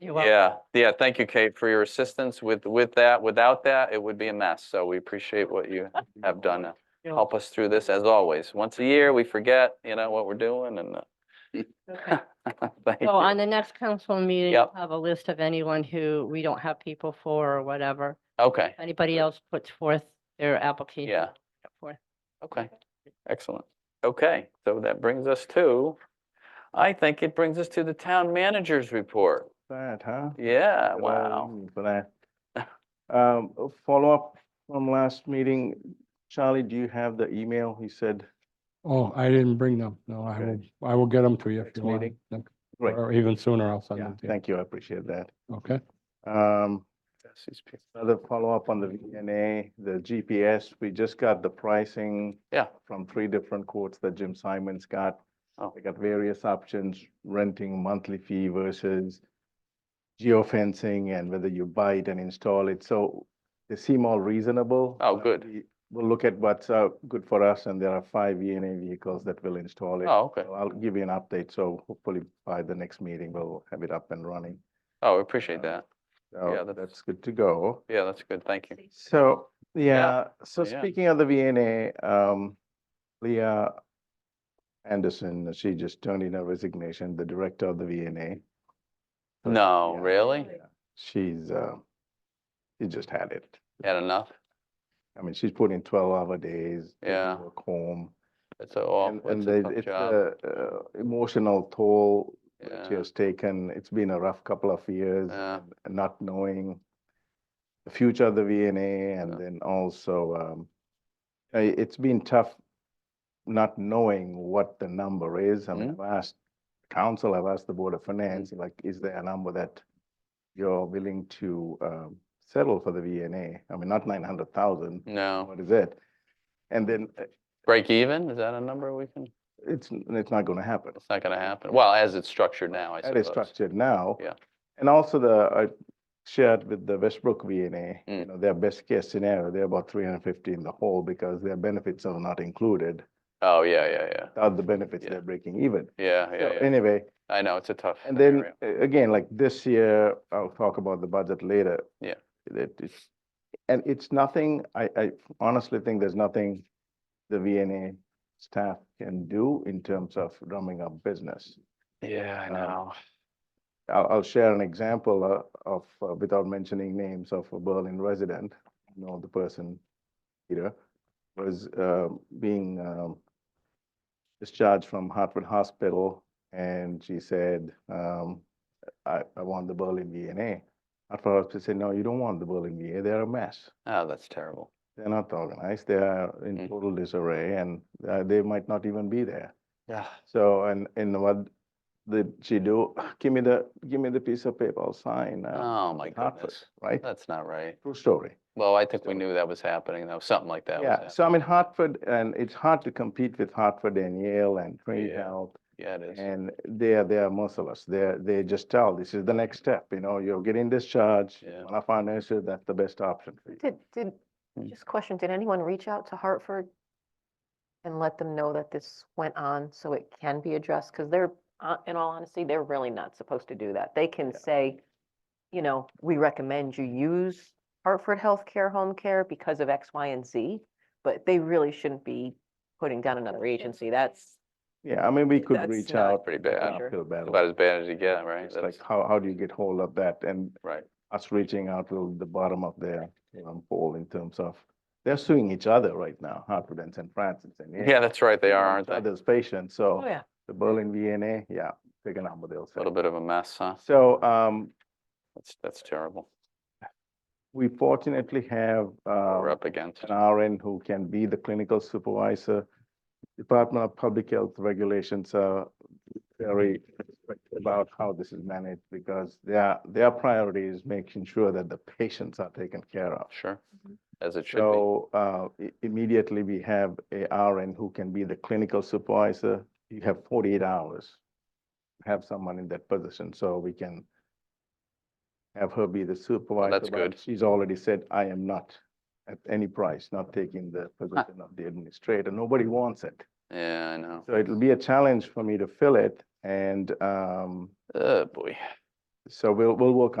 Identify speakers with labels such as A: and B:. A: You're welcome.
B: Yeah, yeah, thank you, Kate, for your assistance with, with that. Without that, it would be a mess. So we appreciate what you have done to
A: You're
B: help us through this as always. Once a year, we forget, you know, what we're doing and,
A: Okay.
B: uh, thank
A: So
B: you.
A: on the next council meeting, we'll
B: Yep.
A: have a list of anyone who we don't have people for or whatever.
B: Okay,
A: If Anybody else puts forth their application.
B: yeah,
A: put it forth.
B: okay, excellent. Okay, so that brings us to, I think it brings us to the town manager's report.
C: That, huh?
B: Yeah,
C: Good
B: wow.
C: old Brad. Um, a follow-up from last meeting. Charlie, do you have the email? He said,
D: Oh, I didn't bring them. No, I will,
C: Okay.
D: I will get them to you if
C: Next
D: you want.
C: meeting.
D: them,
C: Great.
D: Or even sooner, I'll send
C: yeah,
D: them to you.
C: thank you, I appreciate that.
D: Okay,
C: Um, another follow-up on the VNA, the GPS, we just got the pricing.
B: Yeah.
C: From three different quotes that Jim Simons got.
B: Oh.
C: We got various options, renting monthly fee versus geofencing and whether you buy it and install it. So they seem all reasonable.
B: Oh,
C: Uh,
B: good.
C: we- We'll look at what's uh, good for us, and there are five VNA vehicles that will install it.
B: Oh, okay.
C: So I'll give you an update, so hopefully by the next meeting, we'll have it up and running.
B: Oh, I appreciate
C: Uh,
B: that.
C: So
B: Yeah, that's-
C: That's good to go.
B: Yeah, that's good. Thank you.
C: So, yeah, so
B: yeah.
C: speaking of the VNA, um, Leah Anderson, she just turned in her resignation, the director of the VNA. So,
B: No,
C: yeah,
B: really?
C: yeah, She's, uh, she just had it.
B: Had enough?
C: I mean, she's put in twelve hour days. taking
B: Yeah.
C: Work home.
B: It's a
C: And,
B: awful,
C: and
B: it's a
C: the-
B: tough
C: it's
B: job.
C: a, uh, emotional toll that she
B: Yeah,
C: has taken. It's been a rough couple of years.
B: yeah,
C: and not knowing the future of the VNA
B: Yeah.
C: and then also, um, uh, it's been tough not knowing what the number is. I mean, I've asked council, I've asked the Board of Finance, like, is there a number that you're willing to, um, settle for the VNA? I mean, not nine hundred thousand,
B: no.
C: what is it? And then uh,
B: Break even, is that a number we can,
C: it's, it's not gonna happen.
B: it's not gonna happen, well, as it's structured now, I
C: That is
B: suppose.
C: structured now.
B: Yeah.
C: And also the, I shared with the Westbrook VNA, you
B: Mm.
C: know, their best case scenario, they're about three hundred and fifty in the hole because their benefits are not included.
B: Oh, yeah, yeah, yeah,
C: Without the benefits,
B: Yeah.
C: they're breaking even.
B: yeah,
C: So
B: yeah, yeah,
C: Anyway,
B: I know, it's a tough.
C: and then
B: scenario.
C: uh, again, like this year, I'll talk about the budget later.
B: Yeah.
C: That it's, and it's nothing, I, I honestly think there's nothing the VNA staff can do in terms of drumming up business.
B: Yeah, I
C: um,
B: know,
C: I'll, I'll share an example uh, of, uh, without mentioning names, of a Berlin resident, you know, the person, Peter, was uh, being um, discharged from Hartford Hospital, and she said, um, I, I want the Berlin VNA. Hartford Hospital said, no, you don't want the Berlin VA, they're a mess.
B: oh, that's terrible,
C: They're not organized, they are in
B: Mm.
C: total disarray, and uh, they might not even be there.
B: yeah,
C: So, and, and what did she do? Give me the, give me the piece of paper, I'll sign. uh,
B: oh my
C: in Hartford,"
B: goodness,
C: Right?
B: that's not right.
C: True story.
B: Well, I think we
C: So-
B: knew that was happening, though, something like that was
C: Yeah,
B: happening,
C: so I'm in Hartford and it's hard to compete with Hartford and Yale and Trinity
B: Yeah.
C: Health.
B: yeah, it is,
C: And they are, they are merciless. They're, they just tell, this is the next step, you know, you're getting discharged.
B: Yeah.
C: One of our nurses, that's the best option for you.
E: Did, did,
B: Mm.
E: just question, did anyone reach out to Hartford and let them know that this went on so it can be addressed? Because they're, uh, in all honesty, they're really not supposed to do that. They can say, you know, we recommend you use Hartford Healthcare Home Care because of X, Y, and Z, but they really shouldn't be putting down another agency. That's,
C: Yeah, I mean, we could
E: That's
C: reach
E: not
C: out.
B: pretty bad,
E: Sure.
C: uphill battle.
B: about as bad as you get, right?
C: It's like,
B: That's-
C: how, how do you get hold of that? And
B: Right,
C: us reaching out to the bottom of their um, poll in terms of, they're suing each other right now, Hartford and St. Francis and. Yale,
B: yeah, that's right, they are,
C: suing
B: aren't
C: each
B: they? A
C: Other's patients, so.
E: oh, yeah.
C: The Berlin VNA, yeah, pick a number, they'll say.
B: Little bit of a mess, huh,
C: So, um,
B: that's, that's terrible,
C: we fortunately have,
B: What we're
C: uh,
B: up against,
C: an RN who can be the clinical supervisor. Department of Public Health regulations are very strict about how this is managed because their, their priority is making sure that the patients are taken care of.
B: sure, as it should be.
C: Mm-hmm. So uh, i- immediately, we have a RN who can be the clinical supervisor. You have 48 hours. to Have someone in that position, so we can have her be the supervisor.
B: that's
C: but
B: good.
C: She's already said, I am not, at any price, not taking the position of the administrator. Nobody wants it.
B: Yeah, I know.
C: So it'll be a challenge for me to fill it, and um,
B: Oh, boy.
C: So we'll, we'll work